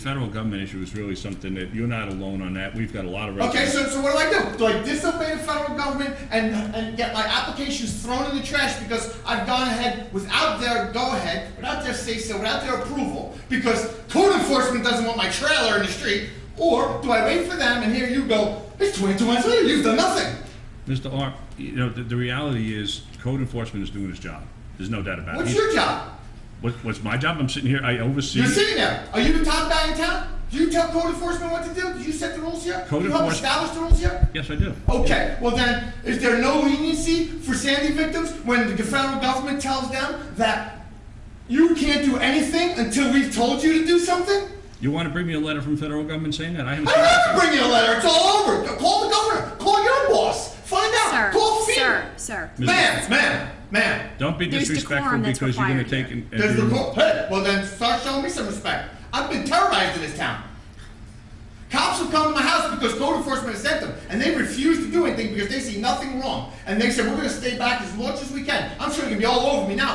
Federal government issue is really something that you're not alone on that. We've got a lot of Okay, residents. so, so what do I do? Do I disobey the federal government and, and get my applications thrown in the trash because I've gone ahead without their go-ahead, without their say-so, without their approval, because code enforcement doesn't want my trailer in the street? Or do I wait for them and here you go, it's twenty-two months later, you've done nothing? Mr. Art, you know, the, the reality is code enforcement is doing his job. There's no doubt about it. What's He's- your job? What, what's my job? I'm sitting here, I oversee. You're sitting there, are you the top guy in town? Do you tell code enforcement what to do? Did you set the rules here? Code Do you help enforce- establish the rules here? Yes, I do. Okay, well then, is there no leniency for Sandy victims when the federal government tells them that you can't do anything until we've told you to do something? You want to bring me a letter from federal government saying that? I haven't I seen don't have it. to bring you a letter, it's all over. Call the governor, call your boss, find Sir, out, call sir, FEMA. sir. Ma'am, ma'am, ma'am, Don't be There's disrespectful decorum that's because you're gonna required take here. and. and there's do- the call, hey, well then start showing me some respect. I've been terrorized in this town. Cops have come to my house because code enforcement has sent them, and they refuse to do anything because they see nothing wrong. And they said, we're gonna stay back as much as we can. I'm sure you're gonna be all over me now